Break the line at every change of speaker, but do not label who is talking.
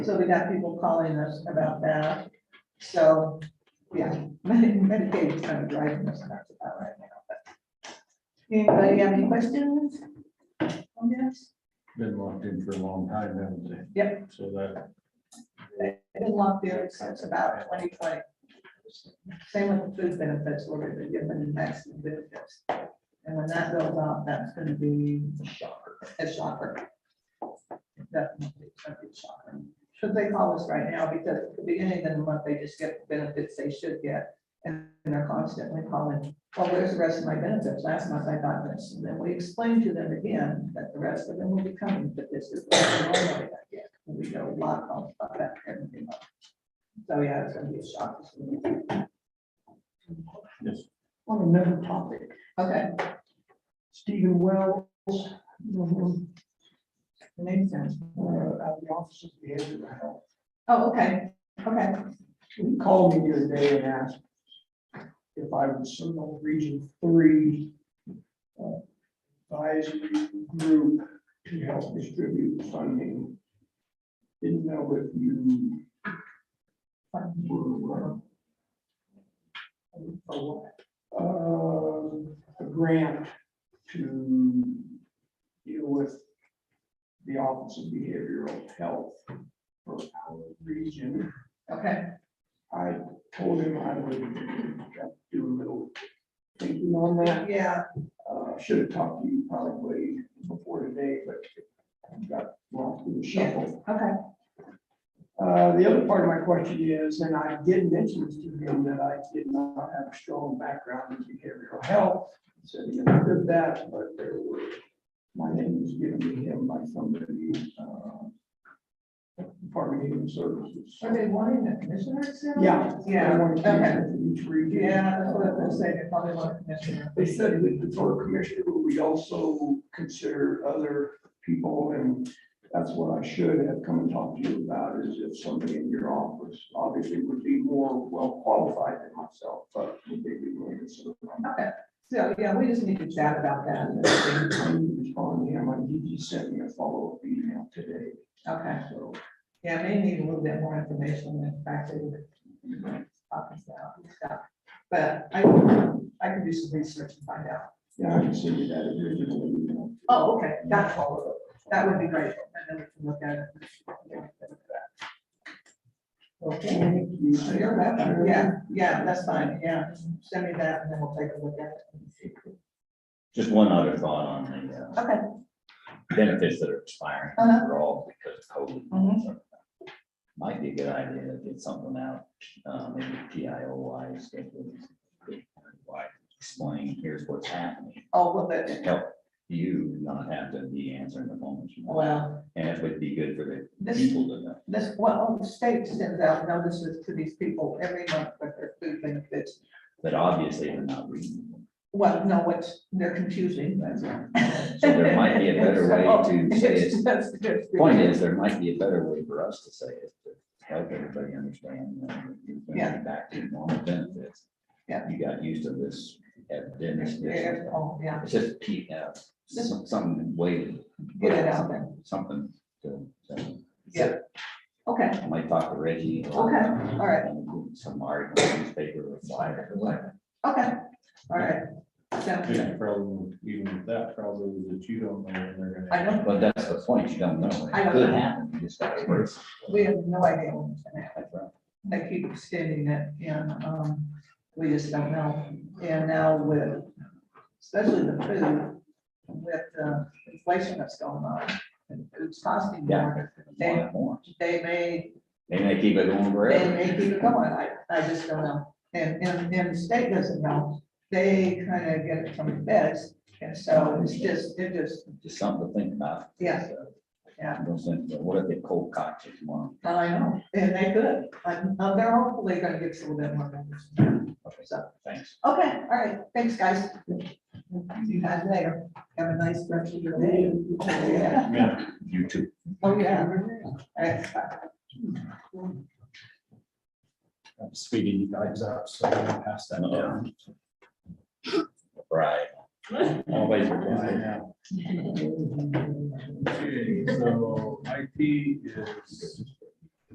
So we got people calling us about that. So, yeah, Medi- Medicaid's kind of driving us nuts about right now. but- Anybody have any questions? Comments?
Been locked in for a long time, haven't they?
Yep.
So that,
I've been locked there since about twenty twenty. Same with the food benefits, we're gonna be given the maximum benefits. And when that goes out, that's gonna be a shocker. Definitely a big shocker. Should they call us right now, because at the beginning of the month, they just get the benefits they should get. And they're constantly calling, well, where's the rest of my benefits? Last month I got this, and then we explained to them again that the rest of them will be coming, but this is. what we normally get. We got a lot of that, everything. up. So, yeah, it's gonna be a shock.
yes,
On another topic,
Okay,
Stephen Wells, um,
name sense.
uh, out of the office of the Andrew Health.
Oh, okay, okay,
He called me the other day and asked if I was some of Region Three uh, advisory group to help distribute funding. Didn't know if you were, uh, for what? Uh, a grant to deal with the Office of Behavioral Health for our region.
okay,
I told him I would do a little thinking on that.
yeah,
Uh, should have talked to you probably before today, but I got lost in the shuffle.
okay,
Uh, the other part of my question is, and I did mention this to him that I did not have a strong background in behavioral health. He Said he understood that, but there were, my name was given to him by somebody, uh, Department of Human Services.
are they wanting the commissioners? to-
Yeah. I
Yeah,
wanted to
okay,
mention it to Each region.
yeah, that's what I was saying, they probably want a commissioner.
They said that the Board Commissioner, but we also consider other people, and that's what I should have come and talked to you about, is if somebody in your office obviously would be more well qualified than myself, but would they be willing to serve?
Okay, so, yeah, we just need to chat about that,
I'm responding, him, I did, you sent me a follow-up email today,
okay,
so.
yeah, they need a little bit more information, in fact, they would talk us out and stuff. But I, I can do some research and find out.
Yeah, I can send you that original email.
Oh, okay, that's all, that would be great, and then we can look at it.
Okay, thank you.
So you're welcome. Yeah, yeah, that's fine, yeah, send me that and then we'll take a look at it.
Just one other thought on the uh,
Okay.
benefits that are expiring
Uh-huh.
overall because of COVID.
Mhm.
Might be a good idea to get something out, uh, maybe PIO wise, schedule, like, explain, here's what's happening.
Oh, well, but,
to Help you not have to be answering the phone. as you want.
well,
And it would be good for the
this,
people to know.
this, well, the state sends out notices to these people every month with their food benefits.
But obviously, they're not reading. them.
Well, no, what's, they're confusing. that's all.
So there might be a better way to say it.
That's- that's-
Point is, there might be a better way for us to say it, to help everybody understand. you know, you're gonna be
Yeah.
Back to normal benefits.
Yeah.
You got used to this at dinner.
Yeah, oh, yeah,
It's just P F, some, some way. to
get it out there,
Something to, to-
yeah. Okay,
I might talk to Reggie. Okay,
Okay, all right.
Some article, in the newspaper, or flyer, or whatever.
okay, all right. Sounds
I think
good.
the problem, even with that problem is that you don't know when they're
I
gonna.
know,
But that's the point, you don't know.
I don't
It could
know.
happen, you just got to worry.
we have no idea what's gonna happen.
That's
they
right.
keep extending it, and, um, we just don't know. And now with, especially the food, with the inflation that's going on, and it's costing more. They,
Want more.
they may,
They may keep it going
they
forever.
may keep it going, I, I just don't know. And, and, and the state doesn't know, they kind of get it from the feds, and so it's just, it just,
Just something to think about.
Yeah.
So,
Yeah.
no sense, but What if they cold cocked you tomorrow?
I know, and they could, I'm, they're hopefully gonna get some of them more notice.
Okay,
So.
Thanks.
Okay, all right, thanks, guys. See you guys later. Have a nice rest of your day. Yeah.
Yeah,
You too.
Oh, yeah. All right, bye.
I'm speeding you guys up, so I'm gonna pass that down.
Right.
Always. reply. Okay, So IT is